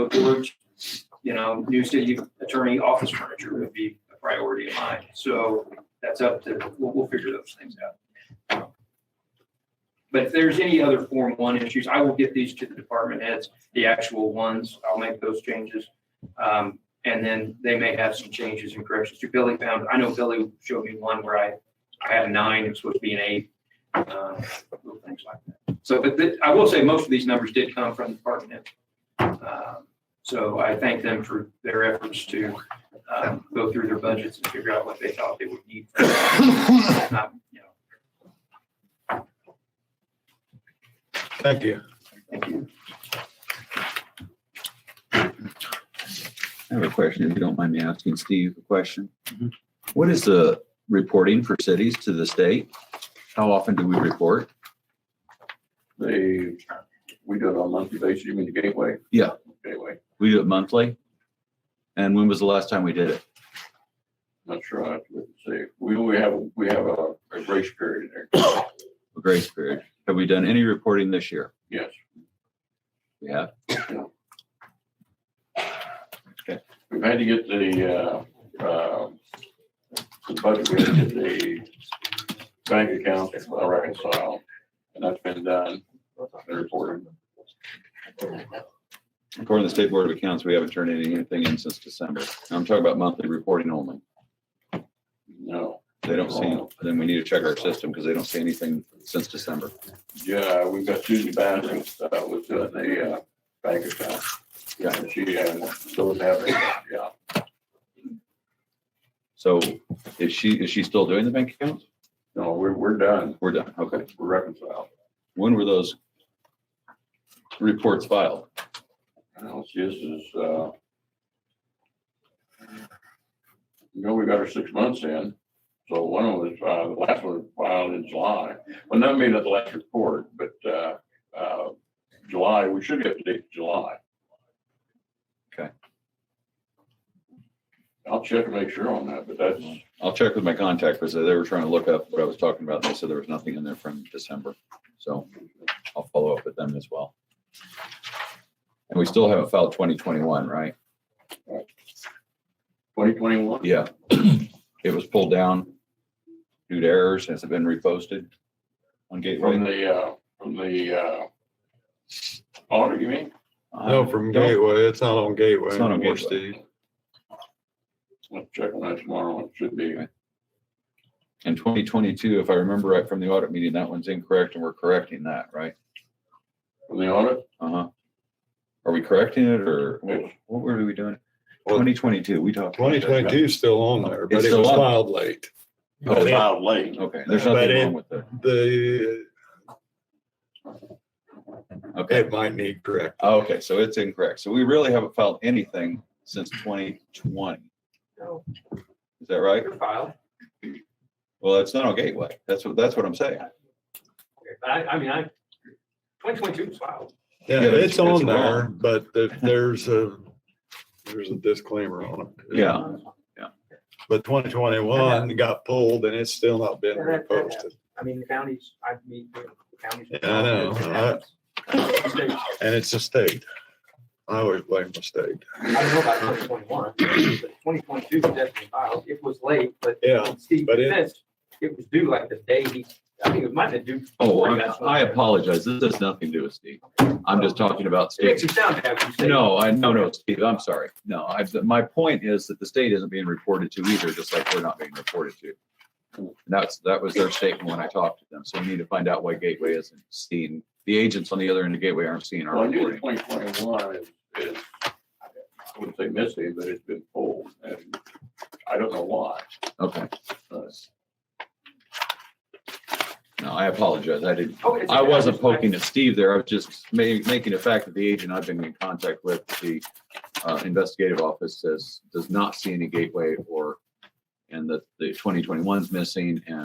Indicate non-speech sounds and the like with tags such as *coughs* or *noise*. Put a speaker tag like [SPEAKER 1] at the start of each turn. [SPEAKER 1] George, you know, new city attorney office furniture would be a priority of mine. So that's up to, we'll, we'll figure those things out. But if there's any other Form One issues, I will get these to the department heads, the actual ones. I'll make those changes. Um, and then they may have some changes and corrections to Billy found. I know Billy showed me one where I, I had a nine, it was supposed to be an eight. uh, Little things like that. So, but the- I will say, most of these numbers did come from the department head. Um, So I thank them for their efforts to um, go through their budgets and figure out what they thought they would
[SPEAKER 2] *coughs*
[SPEAKER 1] need. Not, you know,
[SPEAKER 2] Thank you.
[SPEAKER 1] Thank you.
[SPEAKER 3] I have a question, if you don't mind me asking Steve a question. What is the reporting for cities to the state? How often do we report?
[SPEAKER 4] They, we do it on a monthly basis, you mean the gateway?
[SPEAKER 3] Yeah.
[SPEAKER 4] Gateway,
[SPEAKER 3] We do it monthly? And when was the last time we did it?
[SPEAKER 4] not sure, I have to say, we, we have, we have a, a grace period there,
[SPEAKER 3] A grace period. Have we done any reporting this year?
[SPEAKER 4] yes.
[SPEAKER 3] We have.
[SPEAKER 4] We've had to get the, uh, um, the budget, we had to get the bank account reconciled, and that's been done, and reported.
[SPEAKER 3] According to the State Board of Accounts, we haven't turned anything in since December. And I'm talking about monthly reporting only.
[SPEAKER 4] No,
[SPEAKER 3] They don't see, then we need to check our system because they don't see anything since December.
[SPEAKER 4] yeah, we've got Susie Bass, uh, was doing the, uh, bank account. Yeah, and she, uh, still have it, yeah.
[SPEAKER 3] So is she, is she still doing the bank accounts?
[SPEAKER 4] No, we're, we're done.
[SPEAKER 3] We're done. Okay.
[SPEAKER 4] We're reconciled.
[SPEAKER 3] When were those reports filed?
[SPEAKER 4] Now, see, this is, uh, you know, we got our six months in, so one of them was, uh, the last one was filed in July. Well, not maybe not the last report, but, uh, uh, July, we should get the date of July.
[SPEAKER 3] Okay.
[SPEAKER 4] I'll check and make sure on that, but that's,
[SPEAKER 3] I'll check with my contact because they were trying to look up what I was talking about. and They said there was nothing in there from December. So I'll follow up with them as well. And we still haven't filed twenty twenty-one, right?
[SPEAKER 4] twenty twenty-one?
[SPEAKER 3] Yeah. It was pulled down due to errors. Has it been reposted on
[SPEAKER 4] From
[SPEAKER 3] Gateway?
[SPEAKER 4] the, uh, from the, uh, audit, you mean?
[SPEAKER 3] Uh,
[SPEAKER 2] No, from Gateway, it's not on Gateway.
[SPEAKER 3] Um, It's not on
[SPEAKER 2] anymore,
[SPEAKER 3] Gateway.
[SPEAKER 2] Steve.
[SPEAKER 4] Let's check on that tomorrow. It should be.
[SPEAKER 3] Okay. In twenty twenty-two, if I remember right from the audit meeting, that one's incorrect and we're correcting that, right?
[SPEAKER 4] From the audit,
[SPEAKER 3] Uh-huh. Are we correcting it or what what were we doing? Twenty twenty-two, we talked. about that.
[SPEAKER 2] Twenty twenty-two is still on there, but
[SPEAKER 3] It's
[SPEAKER 2] it
[SPEAKER 3] still
[SPEAKER 2] was
[SPEAKER 3] on.
[SPEAKER 2] filed late.
[SPEAKER 4] it was filed late.
[SPEAKER 3] Okay, there's
[SPEAKER 2] But
[SPEAKER 3] nothing
[SPEAKER 2] it-
[SPEAKER 3] wrong with that.
[SPEAKER 2] The,
[SPEAKER 3] Okay.
[SPEAKER 2] it might need correct.
[SPEAKER 3] Oh, Okay, so it's incorrect. So we really haven't filed anything since twenty twenty.
[SPEAKER 1] No.
[SPEAKER 3] Is that right?
[SPEAKER 1] Your file.
[SPEAKER 3] Well, it's not on Gateway. That's what, that's what I'm saying.
[SPEAKER 1] Okay, but I, I mean, I, 2022 is filed.
[SPEAKER 2] Yeah,
[SPEAKER 3] Yeah, it's-
[SPEAKER 2] it's on
[SPEAKER 3] it's
[SPEAKER 2] there,
[SPEAKER 3] wrong.
[SPEAKER 2] but if there's a, there's a disclaimer on it.
[SPEAKER 3] Yeah.
[SPEAKER 2] Oh. But twenty twenty-one got pulled and it's still not been reposted.
[SPEAKER 1] I mean, the counties, I mean, the counties.
[SPEAKER 2] Yeah, I know, I- And it's a state. I always blame the state.
[SPEAKER 1] I don't know about twenty twenty-one, but twenty twenty-two was definitely filed. It was late, but.
[SPEAKER 2] Yeah,
[SPEAKER 1] in Steve's
[SPEAKER 2] but it-
[SPEAKER 1] defense, It was due like the day he, I think it might have been due.
[SPEAKER 3] Oh, I
[SPEAKER 1] That's what-
[SPEAKER 3] I apologize. This has nothing to do with Steve. I'm just talking about
[SPEAKER 1] It makes
[SPEAKER 3] Steve.
[SPEAKER 1] you sound bad when you say.
[SPEAKER 3] No, I, no, no, Steve, I'm sorry. No, I, my point is that the state isn't being reported to either, just like we're not being reported to. And that's, that was their statement when I talked to them. So we need to find out why Gateway isn't seeing, the agents on the other end of Gateway aren't seeing our
[SPEAKER 4] Well, I knew
[SPEAKER 3] reporting.
[SPEAKER 4] twenty twenty-one is, is, I wouldn't say missing, but it's been pulled. And I don't know why.
[SPEAKER 3] Okay.
[SPEAKER 4] but
[SPEAKER 3] No, I apologize. I didn't,
[SPEAKER 1] Oh, it's
[SPEAKER 3] I
[SPEAKER 1] okay.
[SPEAKER 3] wasn't
[SPEAKER 1] just-
[SPEAKER 3] poking at Steve there. I was just ma- making a fact that the agent I've been in contact with, the uh, investigative office says, does not see any gateway or, and that the 2021 is missing and